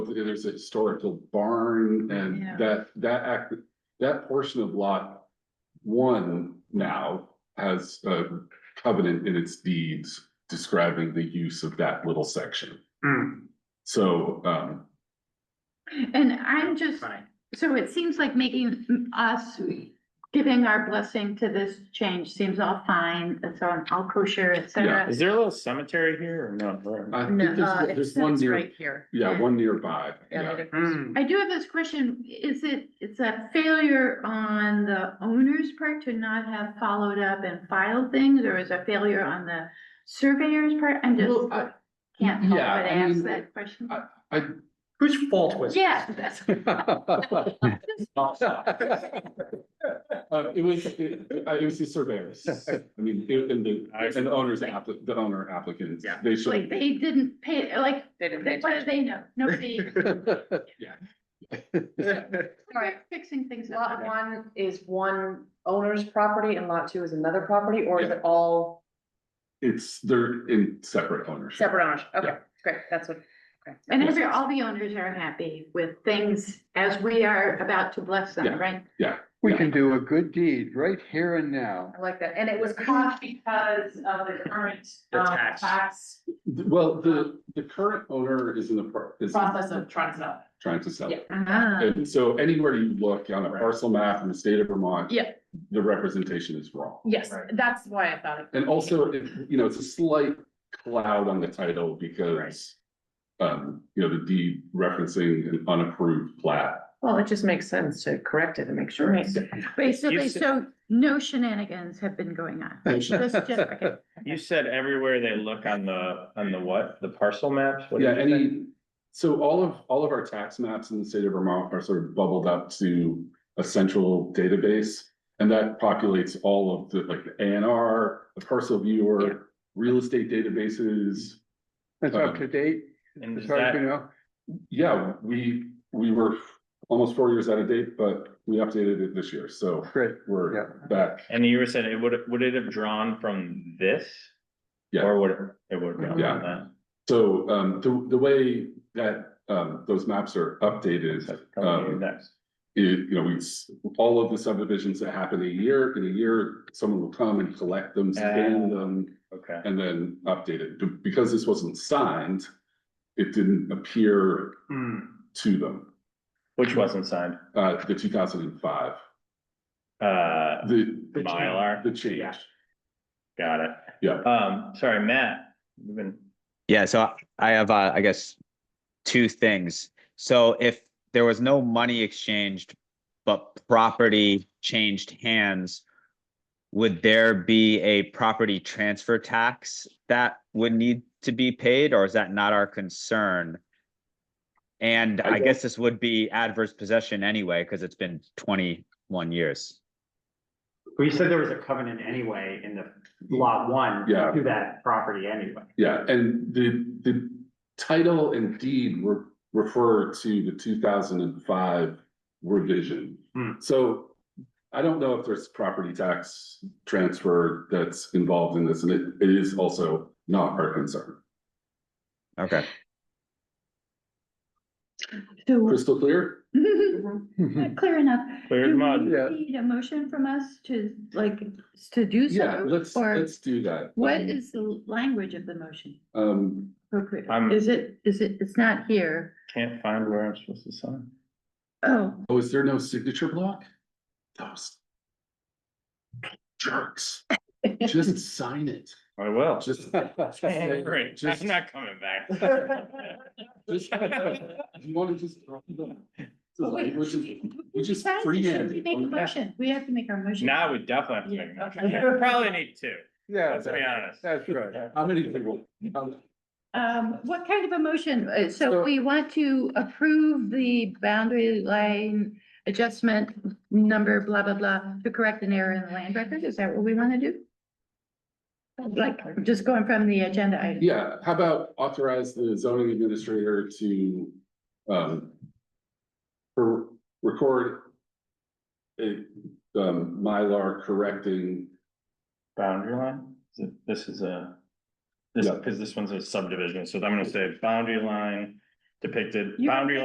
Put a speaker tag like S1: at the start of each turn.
S1: there's a historical barn
S2: Yeah.
S1: and that, that act, that portion of lot one now has a covenant in its deeds describing the use of that little section.
S3: Hmm,
S1: So, um,
S2: And I'm just,
S3: fine.
S2: so it seems like making us, giving our blessing to this change seems all fine, it's on all kosher, et cetera.
S3: Is there a little cemetery here or no? Where-
S1: I
S2: No,
S1: think
S2: uh,
S1: there's,
S2: it's
S1: there's one
S2: it's
S1: near,
S2: right here.
S1: yeah, one nearby,
S2: Yeah,
S1: yeah.
S2: it is.
S3: Hmm,
S2: I do have this question, is it, it's a failure on the owner's part to not have followed up and filed things, or is it a failure on the surveyor's part? I'm just,
S1: Well, I-
S2: can't help but
S1: yeah, I
S2: ask
S1: mean,
S2: that question.
S1: I,
S3: Whose fault was? it?
S2: Yeah, that's,
S3: Oh.
S1: Uh, it was, it uh, it was the surveyors. I mean, it- and the,
S3: I see.
S1: and the owners applicant, the owner applicants,
S3: Yeah.
S1: they should.
S2: like, they didn't pay, like,
S4: They
S2: what
S4: didn't pay
S2: do they know? Nobody,
S4: Right.
S2: fixing things up.
S4: Lot one is one owner's property and lot two is another property, or is
S1: Yeah.
S4: it all
S1: It's, they're in separate ownership.
S4: separate owners? Okay,
S1: Yeah.
S4: great, that's what. okay.
S2: And every, all the owners are happy with things as we are about to bless
S1: Yeah.
S2: them, right?
S5: We can do a good deed right here and now.
S4: I like that, and it was caught because of the current.
S3: The
S4: um,
S3: tax.
S1: Th- Well, the, the current owner is in the, pro- is
S4: Process of trying to sell.
S1: trying to sell it.
S2: Ah,
S1: And so anywhere you look on a parcel map in the state of Vermont.
S4: Yeah.
S1: The representation is wrong.
S4: Yes,
S3: Right.
S4: that's why I thought it.
S1: And also, it- you know, it's a slight cloud on the title because. Um, you know, the deed referencing an unapproved plat.
S4: Well, it just makes sense to correct it and make sure. it's-
S2: Basically,
S3: You've s-
S2: so no shenanigans have been going on. Just- just- okay.
S3: You said everywhere they look on the, on the what? The parcel maps? What
S1: Yeah,
S3: did you say?
S1: any, so all of, all of our tax maps in the state of Vermont are sort of bubbled up to a central database. And that populates all of the, like, the ANR, the parcel
S2: Yeah.
S1: viewer, real estate databases.
S5: That's up to date,
S3: And
S5: as
S3: um, is
S5: far as you
S3: that,
S5: know.
S1: Yeah, we, we were almost four years out of date, but we updated it this year, so
S5: Great.
S1: we're
S5: Yeah.
S1: back.
S3: and you were saying it would, would it have drawn from this?
S1: Yeah.
S3: Or would it, it would have drawn
S1: Yeah.
S3: from that?
S1: So um the the way that um those maps are updated,
S3: So, come to you
S1: Um,
S3: next.
S1: it, you know, we, s- all of the subdivisions that happen a year, in a year, someone will come and collect them, scan
S3: Ah.
S1: them,
S3: Okay.
S1: and then update it. Be- Because this wasn't signed, it didn't appear
S3: Hmm.
S1: to them,
S3: Which wasn't signed?
S1: uh the two thousand and five,
S3: Uh,
S1: the.
S3: The Mylar?
S1: The change.
S3: got it.
S1: Yeah.
S3: Um, sorry, Matt, you've been,
S6: Yeah, so I- I have, uh, I guess, two things. So if there was no money exchanged, but property changed hands, would there be a property transfer tax that would need to be paid, or is that not our concern? And
S1: I
S6: I
S1: don't-
S6: guess this would be adverse possession anyway, because it's been twenty-one years.
S7: Well, you said there was a covenant anyway in the lot one.
S1: Yeah.
S7: To that property anyway.
S1: Yeah, and the, the title and deed re- refer to the two thousand and five revision.
S7: Hmm.
S1: So I don't know if there's property tax transfer that's involved in this, and it, it is also not our concern.
S6: Okay.
S2: So,
S1: Crystal clear?
S2: not clear enough.
S3: Hmm. clear as
S2: Do we
S3: mud.
S5: Yeah.
S2: Need a motion from us to, like, to do so?
S1: Yeah, let's,
S2: Or
S1: let's um, do that.
S2: what is the language of the motion?
S1: Um,
S2: appropriate?
S3: I'm-
S2: Is it, is it, it's not here?
S3: Can't find where I'm supposed to sign.
S2: Oh,
S1: oh, is there no signature block? Those jerks, just sign it,
S3: I will.
S1: just.
S3: Don't worry,
S1: Just-
S3: I'm not coming back.
S1: Just- You wanna just drop the. the
S2: Well, wait.
S1: language and- We just
S2: besides,
S1: free
S2: should we make a
S1: hand. Oh,
S2: motion? We have to make our motion.
S3: Now we definitely have to make a motion. Probably need two,
S5: Yeah,
S3: let's be honest.
S5: that's right.
S1: How many people?
S2: Um, what kind of a motion? Uh, So
S1: So-
S2: we want to approve the boundary line adjustment number, blah, blah, blah, to correct an error in the land record. Is that what we want to do? Like, just going from the agenda item.
S1: Yeah, how about authorize the zoning administrator to, um. re- record. A, um, Mylar correcting,
S3: Boundary line, Is it- this is a, this,
S1: Yeah.
S3: because this one's a subdivision, so I'm gonna say boundary line depicted
S2: You-
S3: boundary